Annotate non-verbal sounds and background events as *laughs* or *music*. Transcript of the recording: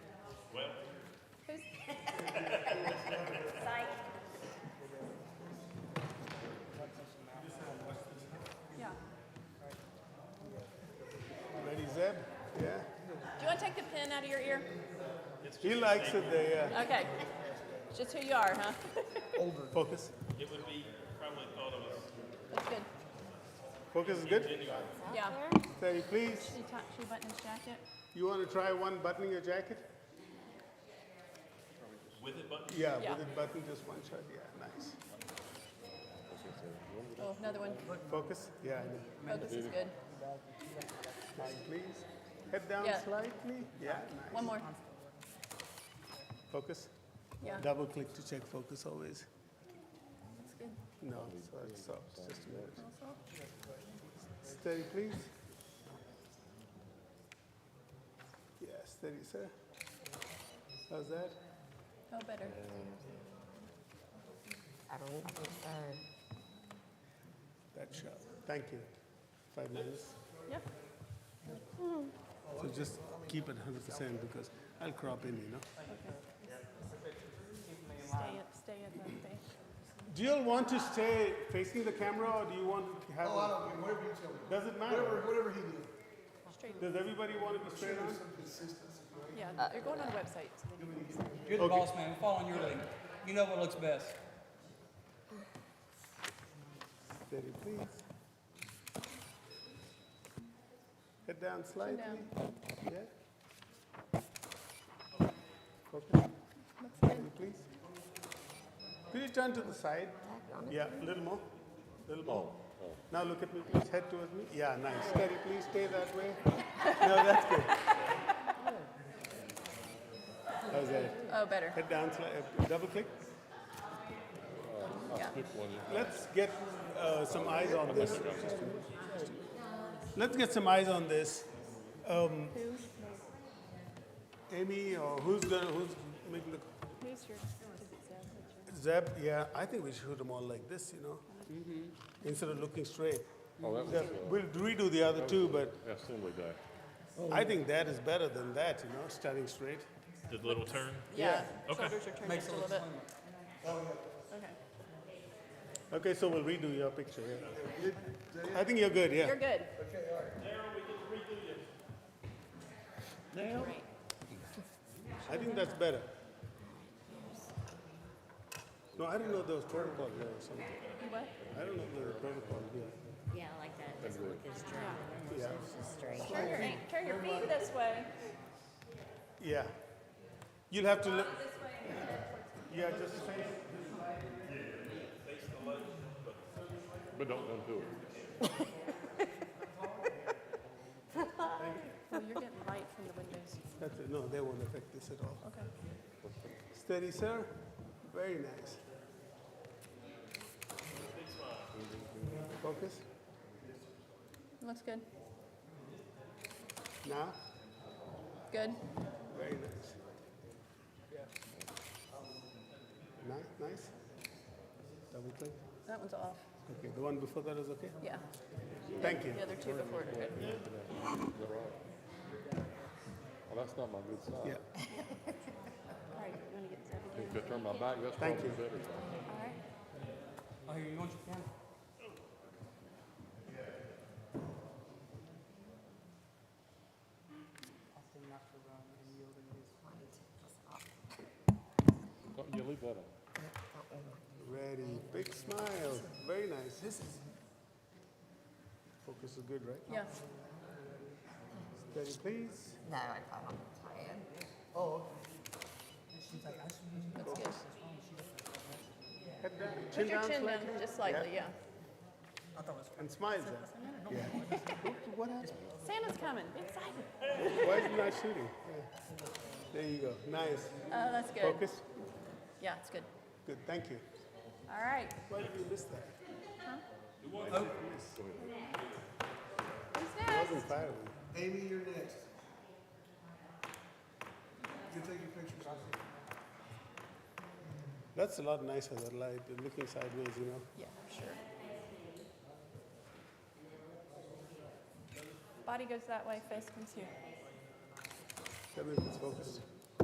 coming out of your ear? He likes it there, yeah. Okay. Just who you are, huh? Focus. It would be probably thought of as That's good. Focus is good. Yeah. Say, please, She, ta- she buttoned his jacket. you want to try one buttoning your jacket? with it button. Yeah, Yeah. with it buttoned, just one shot. Yeah, nice. Oh, another one. Focus. Yeah, I know. Focus is good. Say, please. Head down Yeah. slightly. Yeah, nice. One more. Focus. Yeah. Double click to check focus always. That's good. No, so it's soft. Just a minute. Steady, please. Yeah, steady, sir. How's that? Oh, better. I don't even understand. That shot. Thank you. Five minutes. Yep. So just keep it 100% because I'll crop in, you know. Stay at, stay at the thing. Do you all want to stay facing the camera or do you want to have? Oh, I don't mean, whatever you tell me. Does it matter? Whatever, whatever he needs. Straight. Does everybody want to be straight on? Yeah, they're going on the website. So they can see. You're the boss man. We're following your lead. You know what looks best. Steady, please. Head down slightly. Yeah. Focus. Steady, please. Could you turn to the side? Yeah, a little more. Little more. Oh. Now look at me, please. Head towards me. Yeah, nice. Steady, please. Stay that way. *laughs* no, that's good. How's that? Oh, better. Head down, sli- uh, double click. Yeah. Let's get uh, some eyes on this. Let's get some eyes on this. Who? Amy, or who's gonna, who's making the, Who's your? Does it say? Zeb, yeah, I think we should shoot them all like this, you know? Mm-hmm. Instead of looking straight. Oh, that was, Yeah, uh, We'll redo the other two, but assembly day. I think that is better than that, you know, starting straight. The little turn. Yeah. Okay. Shoulders are turned Makes just it a look little bit. slimmer. Okay. Okay, so we'll redo your picture, yeah. I think you're good, yeah. You're good. I think that's better. No, I don't know if there was protocol here or something. You what? I don't know if there was protocol here. Yeah, I like that. Doesn't look as straight. Yeah. It's just straight. Turn your, turn your feet this way. Yeah. You'll have to look. Yeah, just face. But don't undo it. Oh, you're getting light from the windows. That's it. No, they won't affect this at all. Okay. Steady, sir. Very nice. Focus. Looks good. Now. Good. Very nice. Yeah. Nice, nice. Double click. That one's off. Okay, the one before that is okay? Yeah. Thank you. The other two before it are good. You're right. Well, that's not my good side. Yeah. *laughs* All right, you want to get this If I turn my back, that's Thank probably you. better. All right. Oh, here, you want your camera? Don't you leave that on. Ready. Big smile. Very nice. This is. Focus is good, right? Yeah. Steady, please. No, I got on the plan. Looks good. Head down. Put your chin down slightly. just slightly, yeah. And smile, Zeb. Yeah. What- What happened? Santa's coming. Be excited. Why is he not shooting? Yeah. There you go. Nice. Oh, that's good. Focus. Yeah, it's good. Good. Thank you. All right. Why did you miss that? Who's I next? wasn't firing. Amy, you're next. You can take your pictures. That's a lot nicer than like looking sideways, you know. Yeah, sure. Body goes that way, face comes here. Tell me if it's focused.